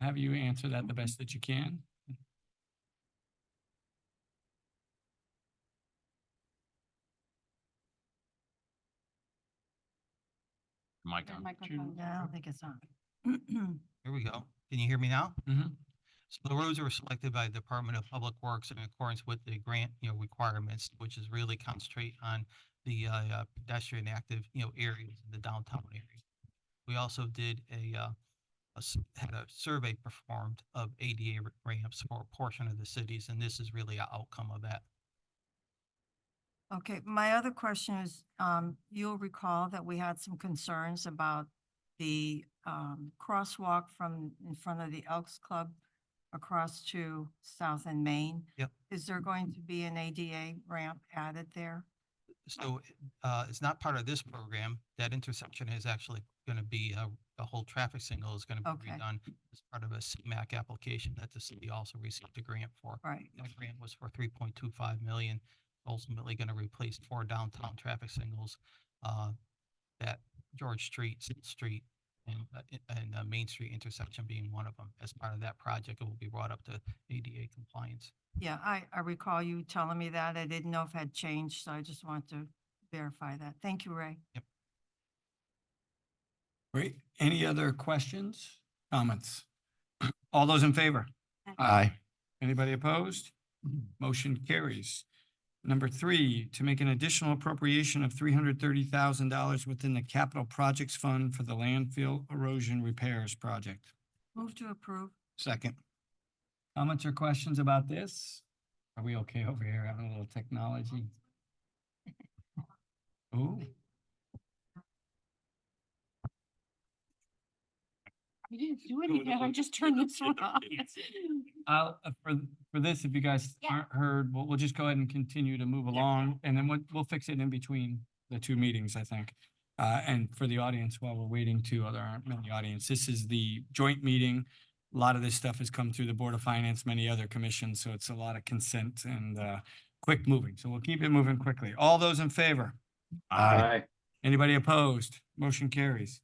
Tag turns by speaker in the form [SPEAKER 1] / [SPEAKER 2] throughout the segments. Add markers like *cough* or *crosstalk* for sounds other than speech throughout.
[SPEAKER 1] have you answer that the best that you can.
[SPEAKER 2] Mic on.
[SPEAKER 1] microphone.
[SPEAKER 3] No, I don't think it's on. *clears throat*
[SPEAKER 4] Here we go. Can you hear me now?
[SPEAKER 1] Mhm.
[SPEAKER 4] So the roads were selected by Department of Public Works in accordance with the grant, you know, requirements, which is really concentrate on the uh, uh, pedestrian active, you know, areas in the downtown area. We also did a, uh, a s- had a survey performed of ADA r- ramps for a portion of the cities, and this is really an outcome of that.
[SPEAKER 3] Okay, my other question is, um, you'll recall that we had some concerns about the, um, crosswalk from in front of the Elks Club across to South and Main.
[SPEAKER 4] Yep.
[SPEAKER 3] Is there going to be an ADA ramp added there?
[SPEAKER 4] So uh, it's not part of this program. That intersection is actually going to be, uh, the whole traffic signal is going to be
[SPEAKER 3] Okay.
[SPEAKER 4] redone as part of a CMAC application that the city also received a grant for.
[SPEAKER 3] Right,
[SPEAKER 4] That grant was for three point two five million, ultimately going to replace four downtown traffic signals uh, that George Street, Sixth Street, and, uh, i- and uh, Main Street intersection being one of them. As part of that project, it will be brought up to ADA compliance.
[SPEAKER 3] yeah, I, I recall you telling me that. I didn't know if it had changed, so I just wanted to verify that. Thank you, Ray.
[SPEAKER 1] Great. Any other questions, comments? *clears throat* All those in favor? Aye. Anybody opposed? *clears throat* Motion carries. Number three, to make an additional appropriation of three hundred thirty thousand dollars within the capital projects fund for the landfill erosion repairs project.
[SPEAKER 3] Move to approve.
[SPEAKER 1] Second. Comments or questions about this? Are we okay over here having a little *laughs* technology? Ooh,
[SPEAKER 5] I didn't do
[SPEAKER 2] Doing
[SPEAKER 5] anything. I
[SPEAKER 2] all-
[SPEAKER 5] just turned this one off.
[SPEAKER 1] I'll, uh, for, for this, if you guys
[SPEAKER 5] Yeah.
[SPEAKER 1] aren't heard, we'll, we'll just go ahead and continue to move along and then we'll, we'll fix it in between the two meetings, I think. Uh, and for the audience, while we're waiting too, uh, there aren't many audience, this is the joint meeting. A lot of this stuff has come through the Board of Finance, many other commissions, so it's a lot of consent and, uh, quick moving. So we'll keep it moving quickly. All those in favor?
[SPEAKER 2] Aye.
[SPEAKER 1] Anybody opposed? Motion carries.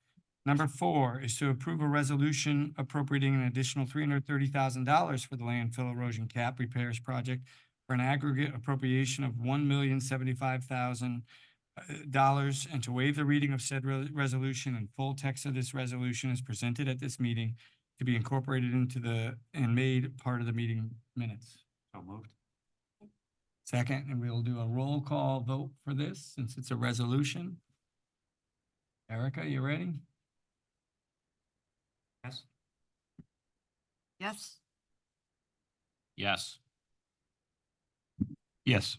[SPEAKER 1] Number four is to approve a resolution appropriating an additional three hundred thirty thousand dollars for the landfill erosion cap repairs project for an aggregate appropriation of one million seventy-five thousand uh, dollars and to waive the reading of said re- resolution and full text of this resolution is presented at this meeting to be incorporated into the, and made part of the meeting minutes.
[SPEAKER 2] So moved.
[SPEAKER 1] Second, and we'll do a roll call vote for this since it's a resolution. Erica, you ready?
[SPEAKER 2] Yes.
[SPEAKER 3] Yes,
[SPEAKER 2] Yes. Yes.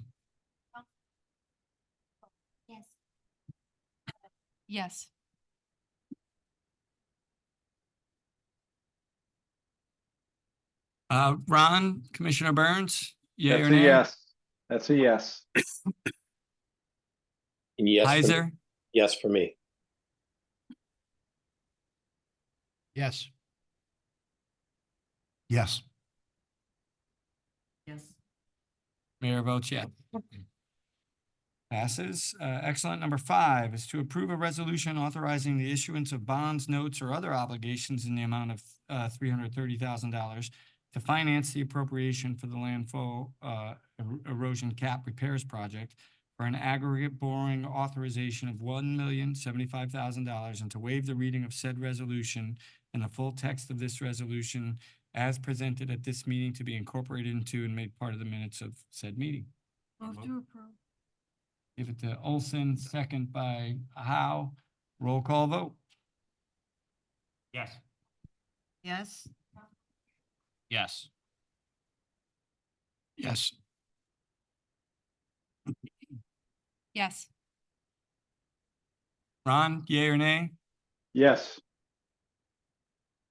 [SPEAKER 5] Yes. Yes.
[SPEAKER 1] Uh, Ron, Commissioner Burns? yea or
[SPEAKER 6] That's a
[SPEAKER 1] nay?
[SPEAKER 6] yes. That's a yes.
[SPEAKER 7] Yes. for-
[SPEAKER 1] Heiser,
[SPEAKER 7] Yes, for me.
[SPEAKER 2] Yes. Yes.
[SPEAKER 5] Yes.
[SPEAKER 1] Mayor votes yes. Passes. Uh, excellent. Number five is to approve a resolution authorizing the issuance of bonds, notes, or other obligations in the amount of, uh, three hundred thirty thousand dollars to finance the appropriation for the landfill, uh, er- erosion cap repairs project for an aggregate borrowing authorization of one million seventy-five thousand dollars and to waive the reading of said resolution and the full text of this resolution as presented at this meeting to be incorporated into and made part of the minutes of said meeting.
[SPEAKER 3] move
[SPEAKER 2] Move.
[SPEAKER 3] to approve.
[SPEAKER 1] Give it to Olson, second by Howe. Roll call vote.
[SPEAKER 2] Yes.
[SPEAKER 3] Yes,
[SPEAKER 2] Yes. Yes.
[SPEAKER 5] *laughs* Yes.
[SPEAKER 1] Ron, yea or nay?
[SPEAKER 6] Yes.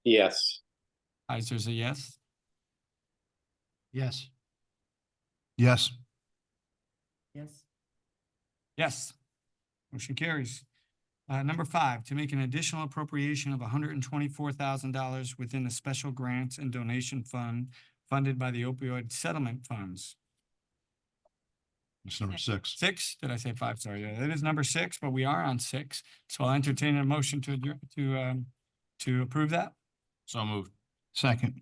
[SPEAKER 7] Yes.
[SPEAKER 1] Heiser's a yes.
[SPEAKER 2] Yes. Yes.
[SPEAKER 5] Yes.
[SPEAKER 1] Yes. Motion carries. Uh, number five, to make an additional appropriation of hundred and twenty-four thousand dollars within the special grants and donation fund funded by the opioid settlement funds.
[SPEAKER 2] It's number six.
[SPEAKER 1] Six, did I say five? Sorry, yeah, that is number six, but we are on six. So I'll entertain a motion to, adjourn- to, um, to approve that.
[SPEAKER 2] So moved. Second.